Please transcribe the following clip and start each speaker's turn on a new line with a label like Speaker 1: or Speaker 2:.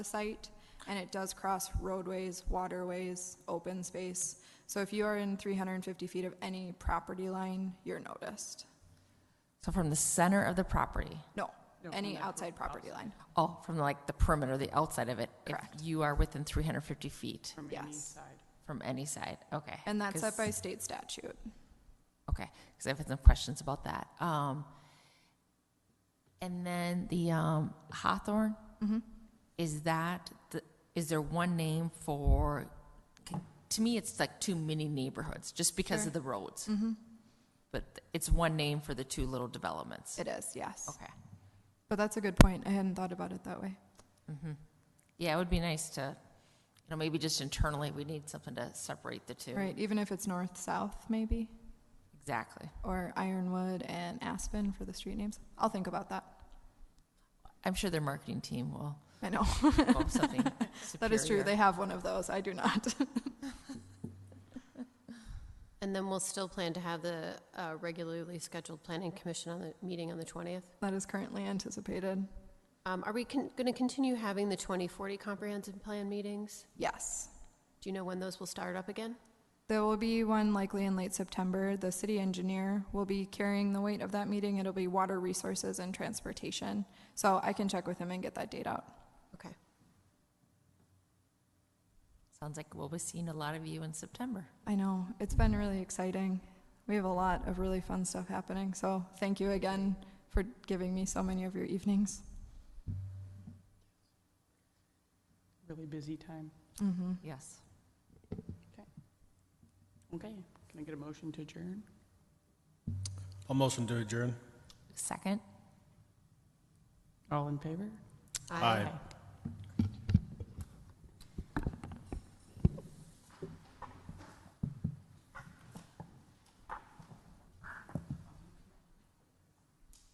Speaker 1: the site, and it does cross roadways, waterways, open space. So if you are in 350 feet of any property line, you're noticed.
Speaker 2: So from the center of the property,
Speaker 1: No, any outside property line.
Speaker 2: oh, from like the perimeter, the outside of it?
Speaker 1: Correct.
Speaker 2: If you are within 350 feet
Speaker 3: from any
Speaker 1: Yes.
Speaker 3: side.
Speaker 2: from any side, okay.
Speaker 1: And that's set
Speaker 2: 'Cause-
Speaker 1: by state statute.
Speaker 2: Okay, because I've had some questions about that. Um, And then the um, Hawthorne?
Speaker 1: Mm-hmm.
Speaker 2: Is that, the- is there one name for, to me, it's like two mini neighborhoods, just because
Speaker 1: Sure. Mm-hmm.
Speaker 2: of the roads. But it's one name for the two little developments?
Speaker 1: It is, yes.
Speaker 2: Okay.
Speaker 1: But that's a good point. I hadn't thought about it that way.
Speaker 2: Yeah, it would be nice to, you know, maybe just internally, we need something to separate the two.
Speaker 1: Right, even if it's north-south maybe,
Speaker 2: Exactly.
Speaker 1: or Ironwood and Aspen for the street names. I'll think about that.
Speaker 2: I'm sure their marketing team will
Speaker 1: I know,
Speaker 2: come up with something superior.
Speaker 1: that is true. They have one of those. I do not.
Speaker 4: And then we'll still plan to have the uh, regularly scheduled planning commission on the, meeting on the 20th.
Speaker 1: That is currently anticipated.
Speaker 4: Um, Are we going to continue having the 2040 comprehensive plan meetings?
Speaker 1: Yes.
Speaker 4: Do you know when those will start up again?
Speaker 1: There will be one likely in late September. The city engineer will be carrying the weight of that meeting. It'll be water resources and transportation. So I can check with him and get that date out.
Speaker 4: Okay.
Speaker 2: Sounds like we'll be seeing a lot of you in September.
Speaker 1: I know, it's been really exciting. We have a lot of really fun stuff happening. So thank you again for giving me so many of your evenings.
Speaker 3: Really busy time.
Speaker 1: Mm-hmm.
Speaker 2: Yes.
Speaker 3: Okay, can I get a motion to adjourn?
Speaker 5: I'll motion to adjourn.
Speaker 2: Second?
Speaker 3: All in favor?
Speaker 5: Aye.
Speaker 3: Aye.